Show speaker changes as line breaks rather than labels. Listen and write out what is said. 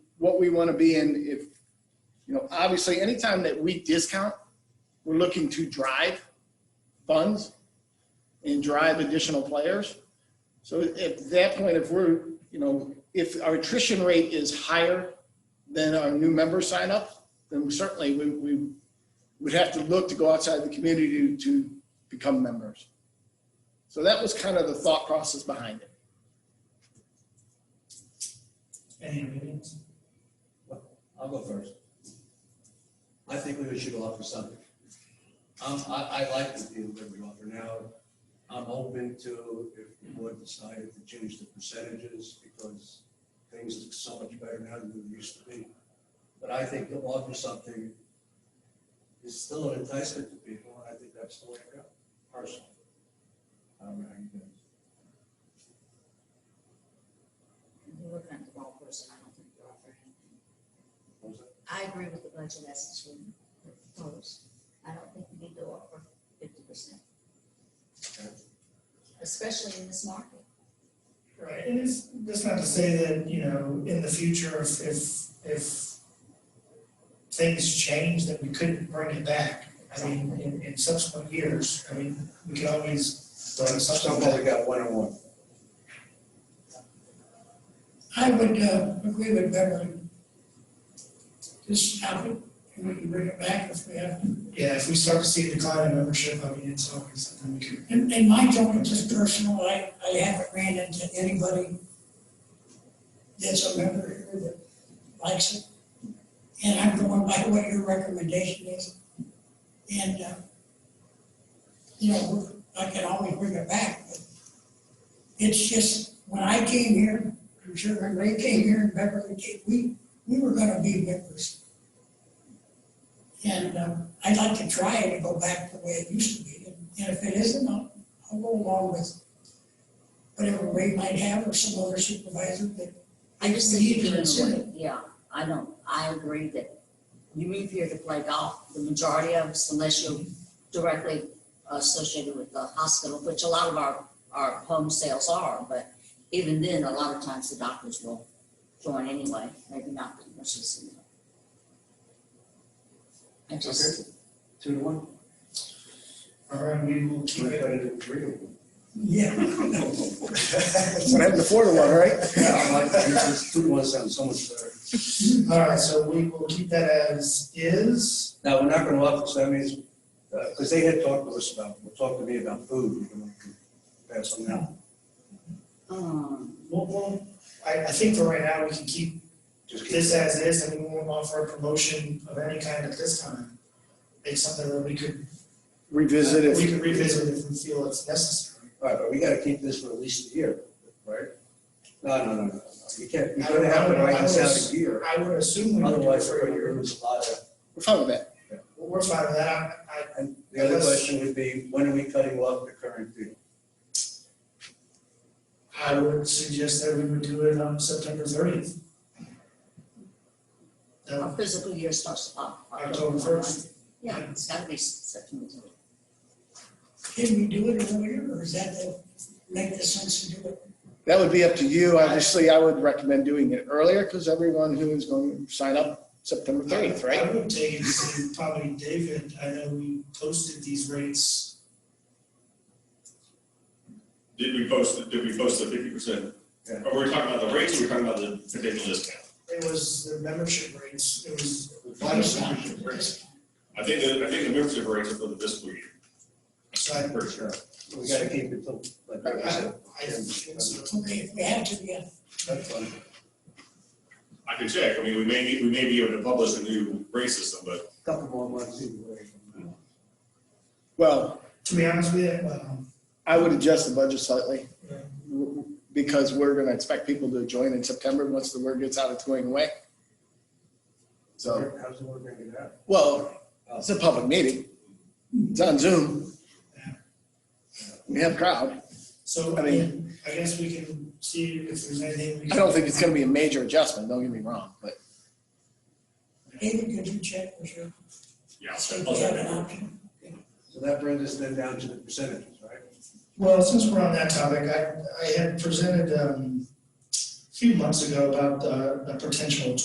what we want to be in if, you know, obviously, anytime that we discount, we're looking to drive funds and drive additional players. So at that point, if we're, you know, if our attrition rate is higher than our new member sign up, then certainly we, we would have to look to go outside the community to become members. So that was kind of the thought process behind it.
Any opinions?
I'll go first. I think we should offer something. Um, I, I like the deal that we offer now. I'm open to if the board decided to change the percentages because things are so much better now than they used to be. But I think to offer something is still an enticement to people, and I think that's the way to go, personally. I don't know how you guys.
You're looking at the wrong person, I don't think you offer anything.
what was that?
I agree with the budget as it's written, proposed. I don't think we need to offer fifty percent, especially in this market.
Right, and it's, that's not to say that, you know, in the future, if, if, if things change, that we couldn't bring it back. I mean, in, in subsequent years, I mean, we can always throw something
Somehow
back.
we got one on one.
I would uh, agree with Beverly. Just stop it, and we can bring it back if we have. to.
Yeah, if we start to see a decline in membership, I mean, it's always something we could.
And and my opinion, just personal, I, I haven't ran into anybody that's a member here that likes it. And I'm going by what your recommendation is. And, uh, you know, we're- I can always bring it back, but it's just, when I came here, I'm sure when Ray came here and Beverly came, we, we were gonna be members. And, um, I'd like to try it and go back the way it used to be, and if it isn't, I'll, I'll go along with whatever Ray might have or some other supervisor that.
I just
we
think
need to
you're in a
consider.
way, yeah, I don't, I agree that you move here to play golf, the majority of us, unless you're directly associated with the hospital, which a lot of our, our home sales are, but even then, a lot of times the doctors will join anyway, maybe not the nurses. you know. I just,
Two to one.
All right, we will keep
We're
it.
gonna do three to one.
Yeah.
That's what happened to four to one, right?
Yeah, I like that. It's just Two to one sounds so much better.
All right, so we will keep that as is.
Now, we're not gonna offer, so that means, because uh, they had talked to us about, well, talked to me about food, you know, pass on that.
um,
We'll, we'll, I, I think for right now, we can keep
Just keep,
this as is, and we won't offer a promotion of any kind at this time. It's something that we could,
Revisit
we
it.
could revisit if we feel it's necessary.
all right, but we gotta keep this for at least a year, right? No, no, no, no, no, you can't, you
I
gotta
don't-
have
I
it
don't-
right
I
this out
don't-
a year,
I would assume we would do it
otherwise
for
we're
a
gonna
year.
lose a lot of.
We're fine with that.
We're fine with that, I, I,
And the other question would be, when are we cutting off the current deal?
I would suggest that we would do it on September thirtieth.
our physical year starts uh,
October first.
Yeah, it's gotta be September thirtieth.
Can we do it earlier, or is that the, make the sense to do it?
That would be up to you. Obviously, I would recommend doing it earlier because everyone who is going to sign up September 30th, right?
I would take it to probably David, I know we posted these rates,
Did we post, did we post the fifty percent?
Yeah.
But we're talking about the rates, or we're talking about the potential discount.
it was the membership rates, it was
I think the, I think the membership rates are for the fiscal year.
So I-
For sure.
We gotta keep it till, like, like I said,
I think so.
Okay, if we have to, yeah.
that's fine.
I can check, I mean, we may, need- we may be able to publish a new rate system, but
Couple more months either way from now.
Well,
To be honest with you, well,
I would adjust the budget slightly
yeah.
because we're going to expect people to join in September once the word gets out it's going away. So,
How's the work gonna get out?
well, it's a public meeting. It's on Zoom. We have crowd.
So,
I
I mean, I guess we can see if there's anything we can.
I don't think it's going to be a major adjustment, don't get me wrong, but
David, could you check for sure?
yeah.
So we have an option.
So that brings us then down to the percentages, right?
Well, since we're on that topic, I, I had presented, um, a few months ago about, uh, a potential